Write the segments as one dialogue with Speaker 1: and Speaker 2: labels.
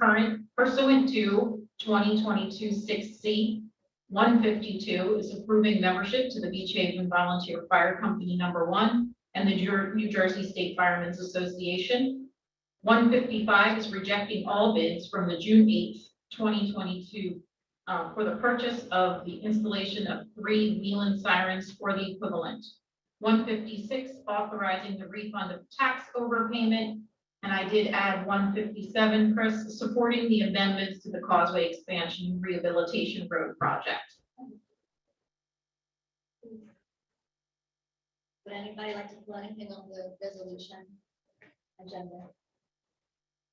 Speaker 1: current pursuant to 2022-6 C. One fifty-two is approving membership to the Beach Haven Volunteer Fire Company Number One and the Jer- New Jersey State Firemen's Association. One fifty-five is rejecting all bids from the June eighth, twenty twenty-two uh, for the purchase of the installation of three Nealon sirens or the equivalent. One fifty-six, authorizing the refund of tax overpayment. And I did add one fifty-seven, Chris, supporting the amendments to the Causeway Expansion Rehabilitation Road Project.
Speaker 2: Would anybody like to put anything on the resolution agenda?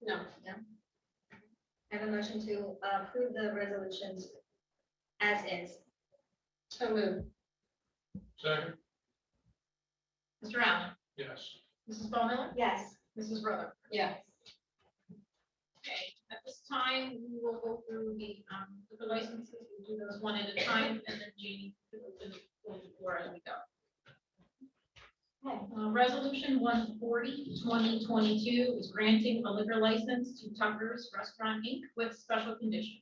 Speaker 1: No.
Speaker 2: No? I have a motion to uh, approve the resolutions as is.
Speaker 1: So moved.
Speaker 3: Second,
Speaker 1: Mr. Allen.
Speaker 3: yes.
Speaker 1: Mrs. Ball Miller.
Speaker 2: Yes.
Speaker 1: Mrs. Rutherford.
Speaker 2: Yes.
Speaker 1: Okay, at this time, we will go through the, um, the licenses, we'll do those one at a time, and then Jeannie will open the floor as we go. Uh, Resolution 140, 2022 is granting a liquor license to Tucker's Restaurant Inc. with special conditions.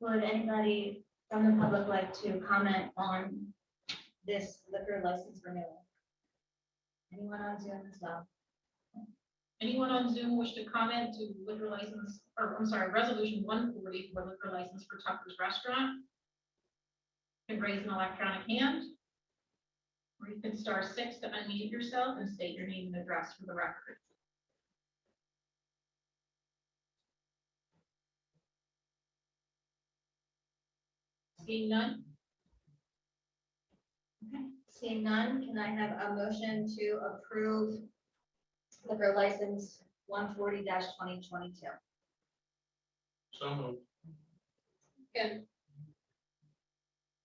Speaker 2: Would anybody from the public like to comment on this liquor license renewal? Anyone on Zoom as well?
Speaker 1: Anyone on Zoom wish to comment to liquor license, or I'm sorry, Resolution 140 for liquor license for Tucker's Restaurant? You Can raise an electronic hand. Or you can star six to unmute yourself and state your name and address for the record. Seeing none?
Speaker 2: Seeing none, can I have a motion to approve liquor license one forty twenty twenty-two?
Speaker 3: So moved,
Speaker 1: Good.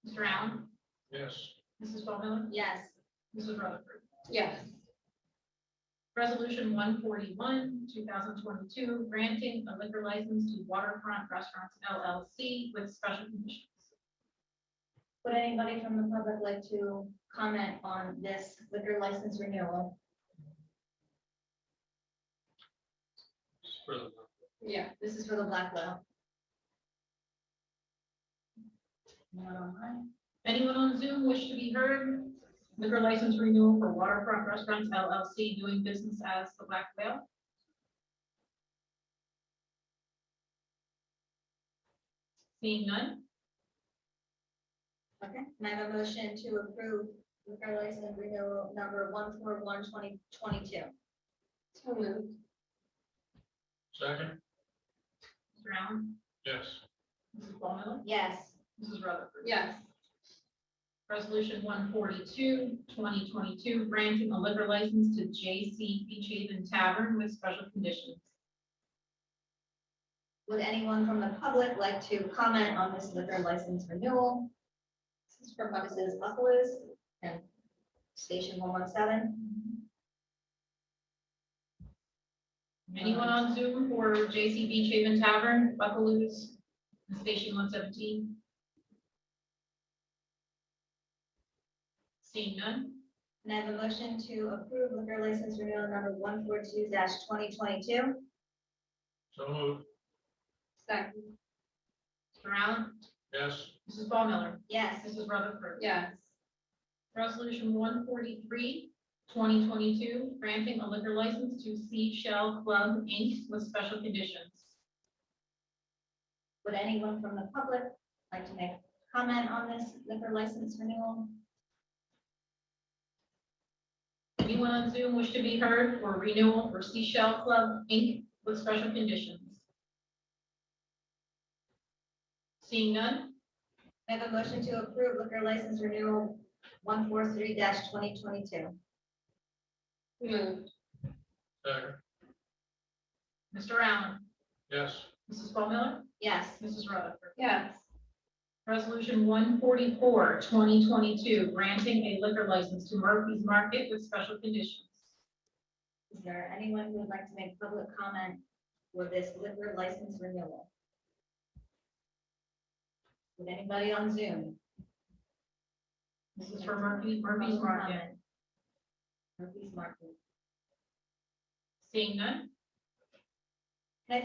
Speaker 1: Mr. Allen?
Speaker 3: yes.
Speaker 1: Mrs. Bowman?
Speaker 2: Yes.
Speaker 1: Mrs. Rutherford?
Speaker 2: Yes.
Speaker 1: Resolution one forty-one, two thousand twenty-two, granting a liquor license to Waterfront Restaurants LLC with special conditions.
Speaker 2: Would anybody from the public like to comment on this liquor license renewal?
Speaker 3: For the-
Speaker 1: Yeah.
Speaker 2: This is for the Blackwell. Anyone online?
Speaker 1: Anyone on Zoom wish to be heard? Liquor license renewal for Waterfront Restaurants LLC doing business as the Black Whale. Seeing none,
Speaker 2: Okay, can I have a motion to approve liquor license renewal number one four one twenty twenty-two? So moved.
Speaker 3: Second,
Speaker 1: Mr. Allen,
Speaker 3: yes.
Speaker 1: Mrs. Ballmiller,
Speaker 2: Yes.
Speaker 1: Mrs. Rutherford.
Speaker 2: Yes.
Speaker 1: Resolution 142, 2022, granting a liquor license to J.C. Beach Haven Tavern with special conditions.
Speaker 2: Would anyone from the public like to comment on this liquor license renewal? This is for Buckus's Buckaloo's and Station one one seven.
Speaker 1: Anyone on Zoom for J.C. Beach Haven Tavern, Buckaloo's, and Station 117? Seeing none?
Speaker 2: Can I have a motion to approve liquor license renewal number one four two twenty twenty-two?
Speaker 3: So moved,
Speaker 2: Second.
Speaker 1: Mr. Allen?
Speaker 3: yes.
Speaker 1: Mrs. Ball Miller?
Speaker 2: Yes.
Speaker 1: Mrs. Rutherford?
Speaker 2: Yes.
Speaker 1: Resolution 143, 2022, granting a liquor license to Seashell Club, Inc. with special conditions.
Speaker 2: Would anyone from the public like to make a comment on this liquor license renewal?
Speaker 1: Anyone on Zoom wish to be heard for renewal for Seashell Club, Inc. with special conditions? Seeing none,
Speaker 2: Can I have a motion to approve liquor license renewal one four three twenty twenty-two?
Speaker 4: Moved,
Speaker 3: Second,
Speaker 1: Mr. Allen,
Speaker 3: yes.
Speaker 1: Mrs. Ball Miller,
Speaker 2: Yes.
Speaker 1: Mrs. Rutherford.
Speaker 4: yes,
Speaker 1: Resolution 144, 2022, granting a liquor license to Murphy's Market with special conditions.
Speaker 2: Is there anyone who would like to make public comment for this liquor license renewal? Would anybody on Zoom?
Speaker 1: This is for Murphy, Murphy's Market.
Speaker 2: Murphy's Market.
Speaker 1: Seeing none,